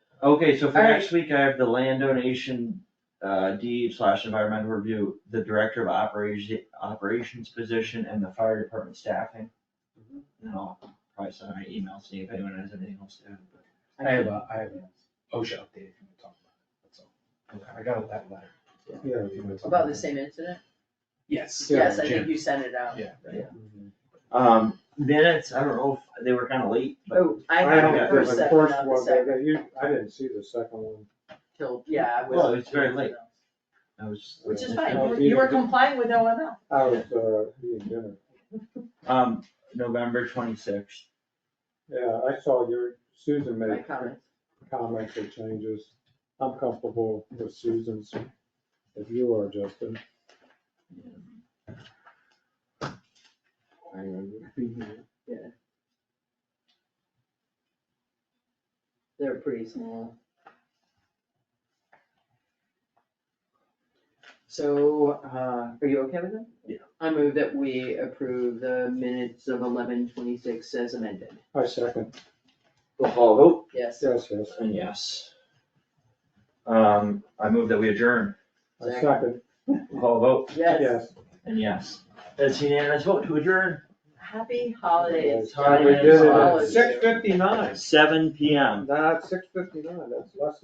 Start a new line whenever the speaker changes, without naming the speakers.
Okay, so for
Alright.
next week, I have the land donation, uh, deed slash environmental review, the director of operation, operations position and the fire department staffing. And I'll probably send my email, see if anyone has anything else to add, but.
I
I have
can-
a, I have an OSHA update if you want to talk about it, that's all. I got that letter.
Yeah.
If you wanna talk
About the
it.
same incident?
Yes.
Yes, I think
Jim.
you sent it out.
Yeah.
Yeah.
Um, minutes, I don't know, if they were kinda late, but
Oh, I
I
had
don't
the
have
think
first
the
set,
first
not the
one,
second
but you- I didn't see the second one.
till, yeah, I was.
Well, it's very late. I was.
Oh, Which is
No,
fine,
you
you were
didn't.
complying with OML.
I was, uh, eating dinner.
Um, November twenty-sixth,
Yeah, I saw your, Susan
My
made
comments.
comments or changes. I'm comfortable with Susan's, if you are, Justin. I am.
They're pretty small. So, uh, are you okay with that?
Yeah.
I move that we approve the minutes of eleven twenty-six as amended.
I second,
we'll call a vote.
Yes,
yes, yes,
And yes. Um, I move that we adjourn,
I second,
call a vote,
yes.
yes.
and yes. That's unanimous vote to adjourn,
Happy holidays.
Holidays.
We did it
All
at
of you.
six fifty-nine.
seven P M.
That's six fifty-nine, that's less